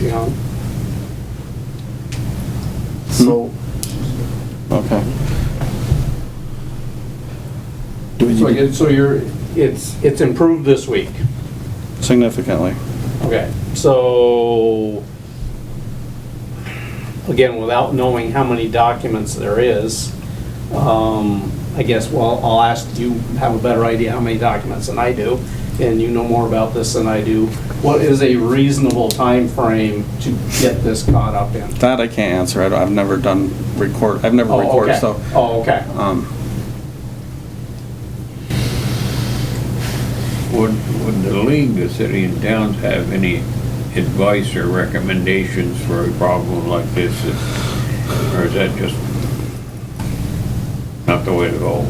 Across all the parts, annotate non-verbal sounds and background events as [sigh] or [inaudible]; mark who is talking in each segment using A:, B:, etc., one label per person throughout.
A: you know?
B: So,
C: Okay. Do we
A: So
C: need
A: you
C: to-
A: so you're, it's, it's improved this week.
C: significantly?
A: Okay, so, again, without knowing how many documents there is, um, I guess, well, I'll ask, you have a better idea how many documents than I do, and you know more about this than I do. What is a reasonable time frame to get this caught up in?
C: That I can't answer. I don't- I've never done record, I've never
A: Oh,
C: recorded,
A: okay.
C: so.
A: Oh, okay.
C: um,
D: Would, would the league, the city and towns have any advice or recommendations for a problem like this? Or is that just not the way to go?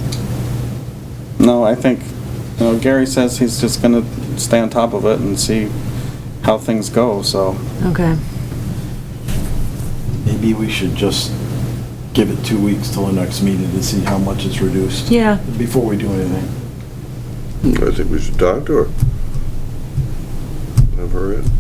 C: No, I think, you know, Gary says he's just gonna stay on top of it and see how things go, so.
E: Okay.
B: maybe we should just give it two weeks till the next meeting to see how much it's reduced.
E: Yeah.
B: Before we do anything.
F: I think we should talk to her. Have her in.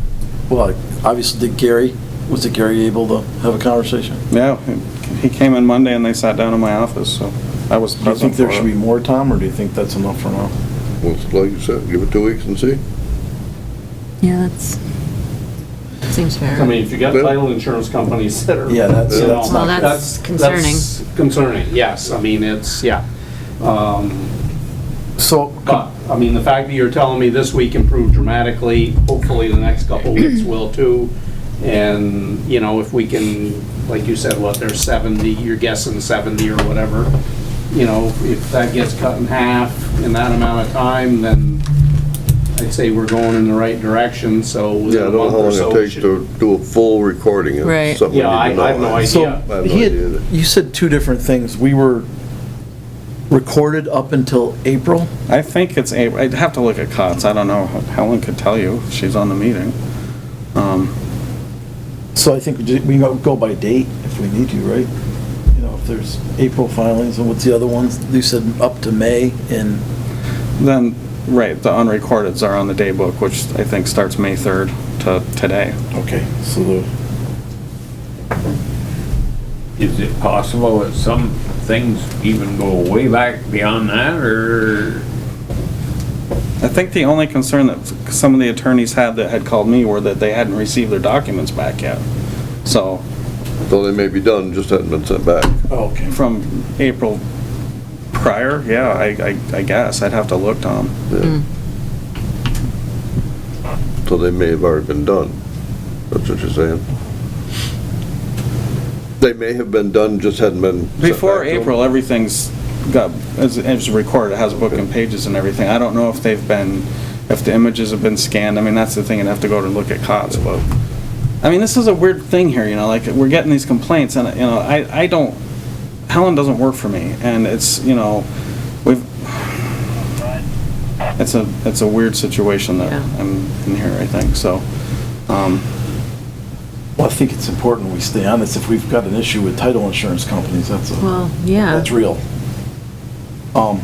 B: Well, obviously, did Gary, was it Gary able to have a conversation?
C: Yeah, he- he came in Monday and they sat down in my office, so I was
B: Do you
C: present
B: think
C: for
B: there should be
C: it.
B: more, Tom, or do you think that's enough for now?
F: Well, it's like you said, give it two weeks and see.
E: Yeah, that's, seems fair.
A: I mean, if you got title insurance companies that are.
B: Yeah, that's-
A: you know,
B: that's
E: Well,
B: not
E: that's good.
A: that's Concerning, yes, I mean, it's, yeah. Um,
B: So,
A: But, I mean, the fact that you're telling me this week improved dramatically, hopefully the next couple
F: [clears throat]
A: weeks will too. And, you know, if we can, like you said, what, there's 70, you're guessing 70 or whatever. You know, if that gets cut in half in that amount of time, then I'd say we're going in the right direction, so. within
F: Yeah, I
A: a
F: don't know
A: month
F: how
A: or
F: long
A: so,
F: it
A: we
F: takes
A: should-
F: to do a full recording. It's
E: Right.
F: something we
A: Yeah, I-
F: need to
A: I have no
F: know.
A: idea.
B: so,
F: I have no
B: he had,
F: idea.
B: you said two different things. We were recorded up until April?
C: I think it's, a. would have to look at COTS. I don't know. Helen could tell you. She's on the meeting. Um,
B: So I think we ju- we go go by date if we need to, right? You know, if there's April filings, and what's the other ones? You said up to May, and
C: Then, right, the unrecordeds are on the day book, which I think starts May 3rd to today.
B: Okay, so the,
D: Is it possible that some things even go way back beyond that, or?
C: I think the only concern that some of the attorneys had that had called me were that they hadn't received their documents back yet. So,
F: So they may be done, just hadn't been sent back.
B: oh, okay.
C: from April prior, yeah, I, I- I guess, I'd have to look, Tom.
F: Yeah.
B: Mm.
E: Mm.
F: So they may have already been done. That's what you're saying. They may have been done, just hadn't been. sent
C: Before
F: back to them.
C: April, everything's got, is, is recorded, it has a book and pages and everything. I don't know if they've been, if the images have been scanned, I mean, that's the thing, I'd have to go to look at COTS, but. I mean, this is a weird thing here, you know, like, we're getting these complaints, and, you know, I, I don't, Helen doesn't work for me, and it's, you know, we've, it's a, it's a weird situation that
E: Yeah.
C: I'm in here, I think, so. Um,
B: Well, I think it's important we stay on this. If we've got an issue with title insurance companies, that's a.
E: Well, yeah.
B: That's real. Um,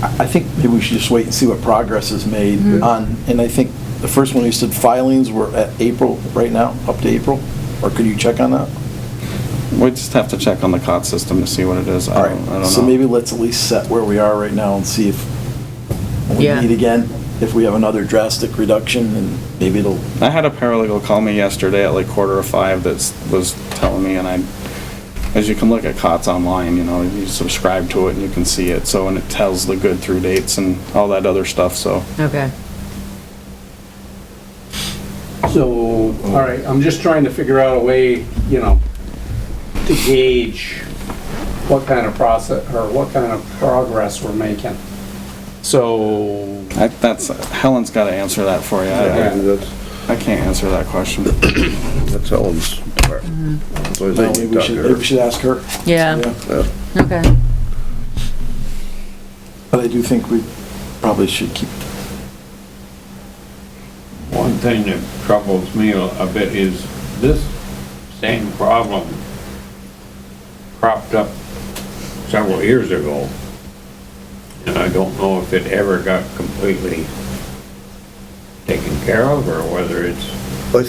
B: I, I think maybe we should just wait and see what progress is made
E: Mm-hmm.
B: on, and I think the first one, you said filings were at April, right now, up to April? Or could you check on that?
C: we just have to check on the COTS system to see what it is,
B: All
C: I don't, I don't know.
B: right, so maybe let's at least set where we are right now and see if when we
E: Yeah.
B: meet again, if we have another drastic reduction, and maybe it'll,
C: I had a paralegal call me yesterday at like quarter of five that was telling me, and I, as you can look at COTS online, you know, you subscribe to it and you can see it, so, and it tells the good through dates and all that other stuff, so.
E: Okay.
A: So, all right, I'm just trying to figure out a way, you know, to gauge what kind of process, or what kind of progress we're making. So,
C: I, that's, Helen's gotta answer that for you.
F: Yeah, I
C: I,
F: mean, that's,
C: I can't answer that question.
F: that's Helen's part. So I
B: well,
F: think
B: maybe
F: you
B: we
F: talk to
B: should,
F: her.
B: maybe we should ask her.
E: Yeah,
F: Yeah.
E: okay.
B: But I do think we probably should keep
D: One thing that troubles me a a bit is this same problem cropped up several years ago. And I don't know if it ever got completely taken care of or whether it's